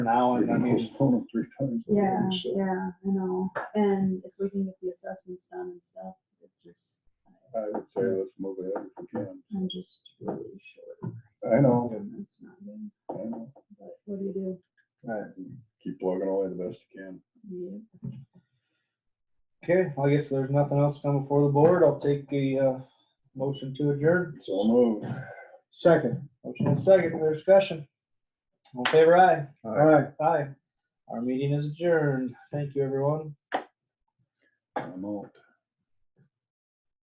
now, and I mean, Postpone them three times. Yeah, yeah, I know. And if we can get the assessments done and stuff, it just, I would say let's move ahead if we can. I'm just really short. I know, and That's not good, I know. but what do you do? right. Keep plugging away the best you can. You- okay, I guess there's nothing else coming before the board, I'll take a, uh, motion to adjourn. So move. Second. Motion and second, for discussion. All in favor aye. Aye. Aye. Our meeting is adjourned, thank you, everyone. I'm out.